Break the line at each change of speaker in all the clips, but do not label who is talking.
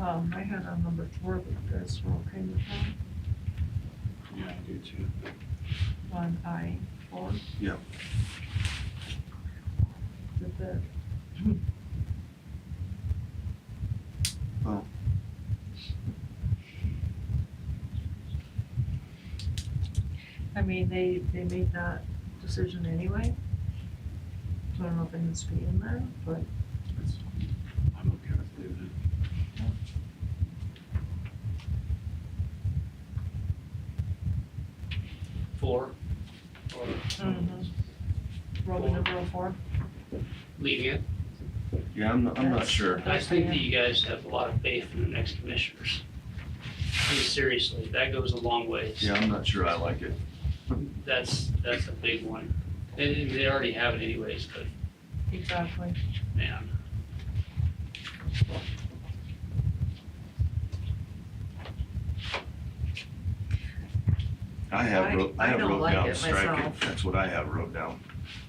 Um, I had on number four, but you guys were okay with that,
Yeah, I do too.
one I four.
Yeah.
Did that,
Well,
I mean, they, they made that decision anyway. So I don't know if it needs to be in there, but
it's, I'm okay with leaving
Four, or
Mm-hmm. roll the number four.
leaving it.
it. Yeah, I'm, not- I'm not
That's-
sure.
I think that you guys have a lot of faith in the next commissioners. I mean, seriously, that goes a long ways.
Yeah, I'm not sure I like it.
That's, that's a big one. And and they already have it anyways, but
Exactly.
man.
I have, wrote-
I- I
I have
don't
wrote
like
down
it
strike it.
myself.
That's what I have wrote down.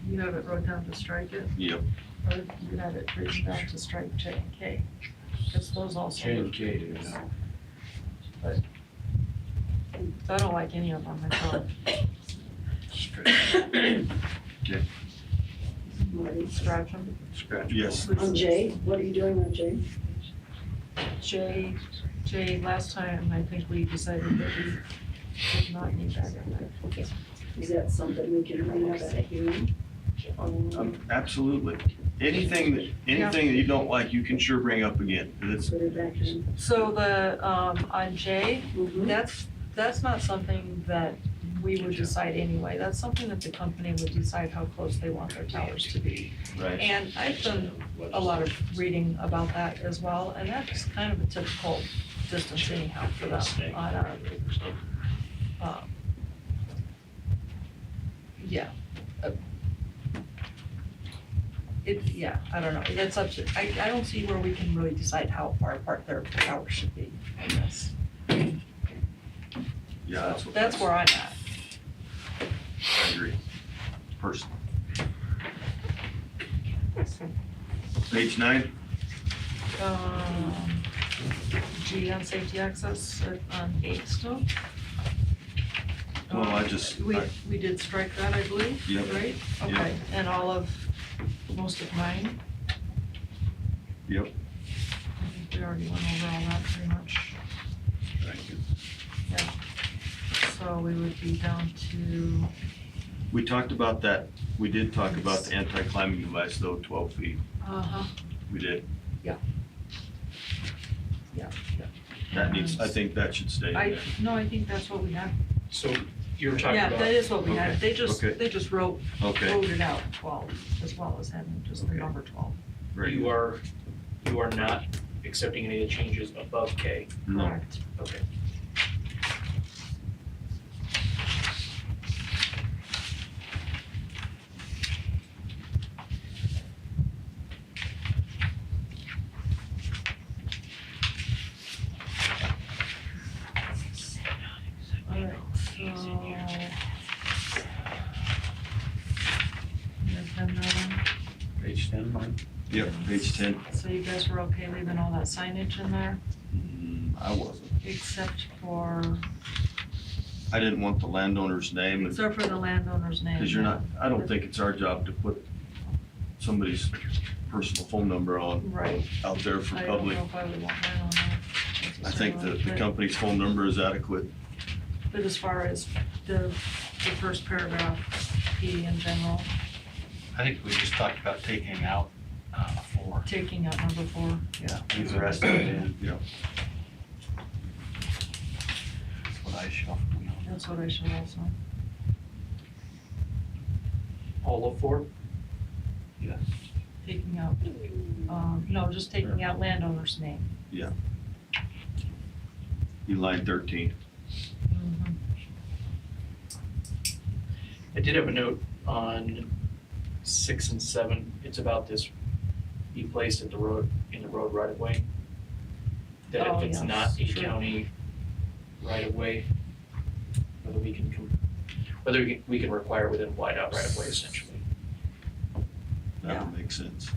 You have it wrote down to strike it,
Yep.
or you have it written down to strike J and K. Cause those also.
K,
I don't like any of them myself.
Scratch,
Marty.
Scratch them.
scratch. Yes,
On J, what are you doing on J?
Jay, Jay, last time I think we decided that we did not need that in there.
Is that something we can bring up at a hearing? Um,
um, absolutely. Anything, that anything that you don't like, you can sure bring up again. And it's-
Put it back in.
So the, um, on Jay,
Mhm.
that's, that's not something that we would decide anyway. That's something that the company would decide how close they want their towers to be.
right.
And I've done a lot of reading about that as well, and that's kind of a typical distance anyhow for them on a, um, yeah. uh, It, yeah, I don't know, that's up to, I, I don't see where we can really decide how far apart their towers should be on this.
Yeah, that's
So
what.
That's where I'm at.
I agree. Personally. Page nine,
Um, G on safety access uh, on eight still.
Well, I
Um,
just-
We,
I-
we did strike that, I believe,
Yep,
right?
yep.
Okay, and all of, most of mine,
yep.
I think we already went over all that pretty much.
Thank you.
So we would be down to,
We talked about that, we did talk about the anti-climbing device though, twelve feet,
uh-huh.
we did.
Yeah. Yeah, yeah.
That needs, I think that should stay in
I,
there.
no, I think that's what we have.
So you were talking
Yeah, that
about,
is what we had. They just,
okay.
they just wrote,
Okay,
wrote it out twelve, as well as having just the
Okay.
number twelve.
very
you
good.
are, you are not accepting any of the changes above K.
No,
Correct.
Okay.
Alright, so. There's been no one.
Page ten, Mike?
yep, page ten.
So you guys were okay leaving all that signage in there,
Mm, I wasn't,
except for,
I didn't want the landowner's name, and-
except for the landowner's name.
cause you're not, I don't think it's our job to put somebody's personal phone number on,
Right,
out there for
I don't know
public.
if I would want that on there.
I think the, the
necessarily,
company's phone number is adequate.
But but as far as the, the first paragraph, P in general,
I think we just talked about taking out, uh, four.
taking out number four.
Yeah. Leave the rest of it in,
Yeah.
that's what I shuffled.
That's what I should also.
All of four?
Yes.
Taking out,
Mm-hmm.
um, no, just taking out landowner's name.
In line thirteen,
Mm-hmm.
I did have a note on six and seven. It's about this, be placed at the road, in the road right of way. That
Oh,
if it's
yes,
not a
sure.
county right of way, whether we can, com- whether we can- we can require within wide out right of way essentially.
that would make sense.